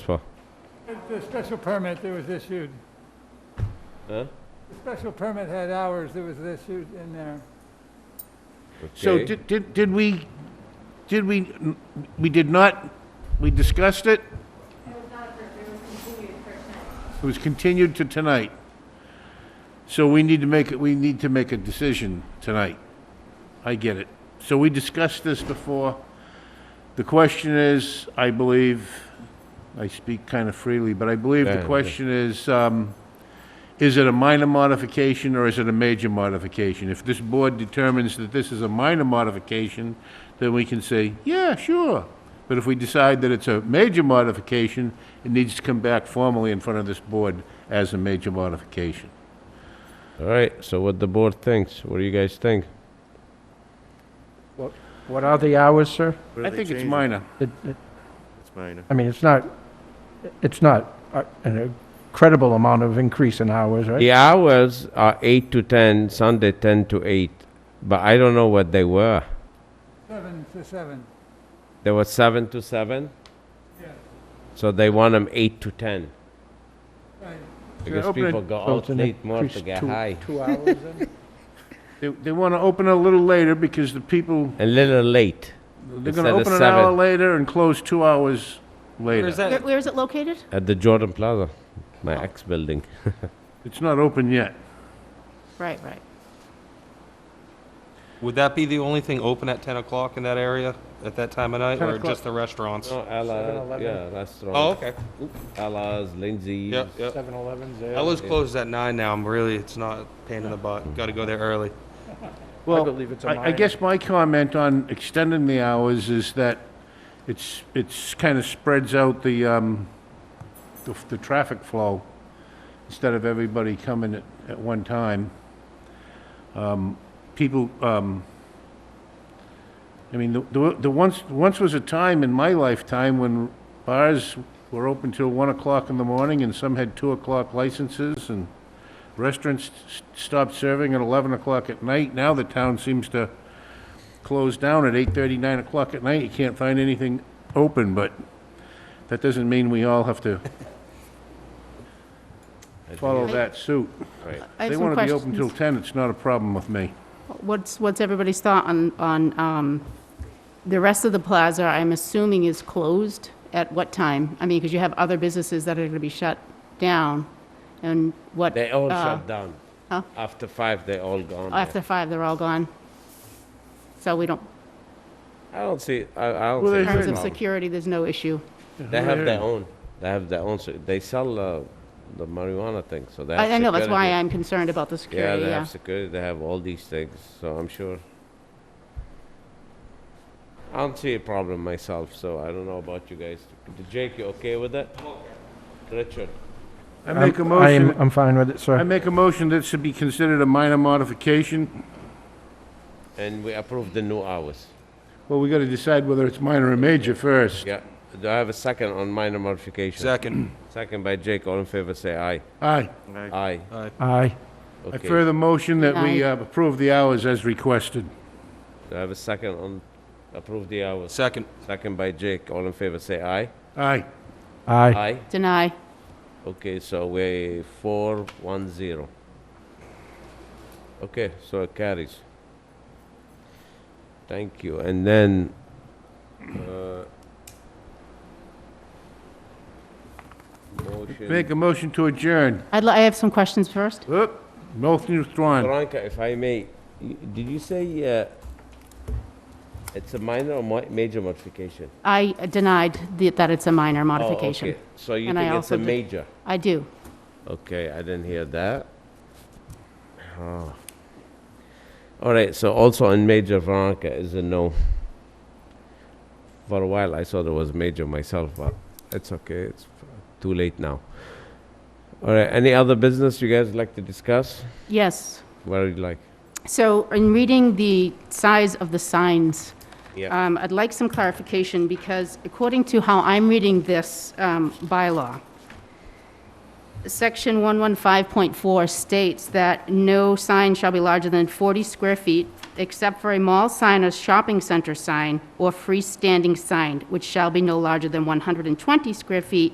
for? The special permit that was issued, Huh? the special permit had hours that was issued in there. So Okay. did, did, did we, did we, we did not, we discussed it, It was not approved, it was continued for tonight. it was continued to tonight. So we need to make, it. we need to make a decision tonight. I get it. So we discussed this before. The question is, I believe, I speak kind of freely, but I believe Yeah, yeah. the question is, um, is it a minor modification or is it a major modification? If this board determines that this is a minor modification, then we can say, yeah, sure. But if we decide that it's a major modification, it needs to come back formally in front of this board as a major modification. All right, so what the board thinks, what do you guys think? What are the hours, sir? What I do they think it's change it? minor. It- it- It's minor. I mean, it's not, it's not uh, an incredible amount of increase in hours, right? The hours are eight to ten, Sunday ten to eight, but I don't know what they were. Seven to seven. They were seven to seven, Yeah, so they want them eight to ten. right. Because open it- people go So out it's an late more to increase get two- high. Two hours then? They, they want to open a little later because the people, A little late, they're Instead going to of open an hour seven. later and close two hours later. Where- Where is it located? at the Jordan Plaza, my ex-building. It's not open yet. Right, right. Would that be the only thing open at 10 o'clock in that area at that time of night, 10 or o'clock. just the restaurants? No, Ella, 7-Eleven. yeah, restaurant. Oh, okay. Ella's, Lindsay's. Yep, yep. Seven Elevens there. Ella's closes at 9 now. I'm really, it's not a pain in the butt. Got to go there early. Well, believe it's a I- I minor. guess my comment on extending the hours is that it's, it's kind of spreads out the, um, the, the traffic flow instead of everybody coming at, at one time. Um, people, um, I mean, the- the, the once, once was a time in my lifetime when bars were open till one o'clock in the morning and some had two o'clock licenses and Restaurants s- stopped serving at 11 o'clock at night. Now the town seems to close down at 8:30, 9 o'clock at night. You can't find anything open, but that doesn't mean we all have to follow that suit. I have They some want to be open till questions. 10, it's not a problem with me. What's, what's everybody's thought on, on, um, the rest of the plaza, I'm assuming is closed at what time? I mean, because you have other businesses that are gonna be shut down, and what? They all uh, shut down. huh? After five, they all gone. there. After five, they're all gone. So we don't, I don't see, I, I don't see. Well, in they it's a terms should- of problem. security, there's no issue. They have their own, they have their own, se- they sell uh, the marijuana thing, so they have I, I know, that's why security. I'm concerned about the Yeah, security, they yeah. have security, they have all these things, so I'm sure. I don't see a problem myself, so I don't know about you guys. Jake, you okay with that? Richard? I make a I'm- I am, motion, I'm fine with it, I sir. make a motion that should be considered a minor modification. And we approve the new hours. Well, we got to decide whether it's minor or major first. Yeah. Do I have a second on minor modification? Second. Second by Jake, all in favor, say aye. Aye. Aye. Aye. Aye. I Okay. Do further motion that we Aye. uh, approve the hours as requested. I have a second on approve the hours? Second. Second by Jake, all in favor, say aye. Aye. Aye. Aye. Deny, Okay, so we're four, one, zero. Okay, so it carries. Thank you, and then, uh, Make motion, a motion to adjourn. I'd, li- I have some questions first. Oop, motion withdrawn. Veronica, if I may, y- did you say, uh, it's a minor or mo- major modification? I denied the- that it's a minor Oh, modification. okay. So you And I think it's also a did- major? I do. Okay, I didn't hear that. Oh. All right, so also in major, Veronica is a no. For a while, I thought it was major myself, but it's okay. It's f- too late now. All right, any other business you guys like to discuss? Yes. What do you like? So in reading the size of the signs, Yeah. um, I'd like some clarification because according to how I'm reading this um, bylaw, section 115.4 states that no sign shall be larger than 40 square feet except for a mall sign or shopping center sign or freestanding sign, which shall be no larger than 120 square feet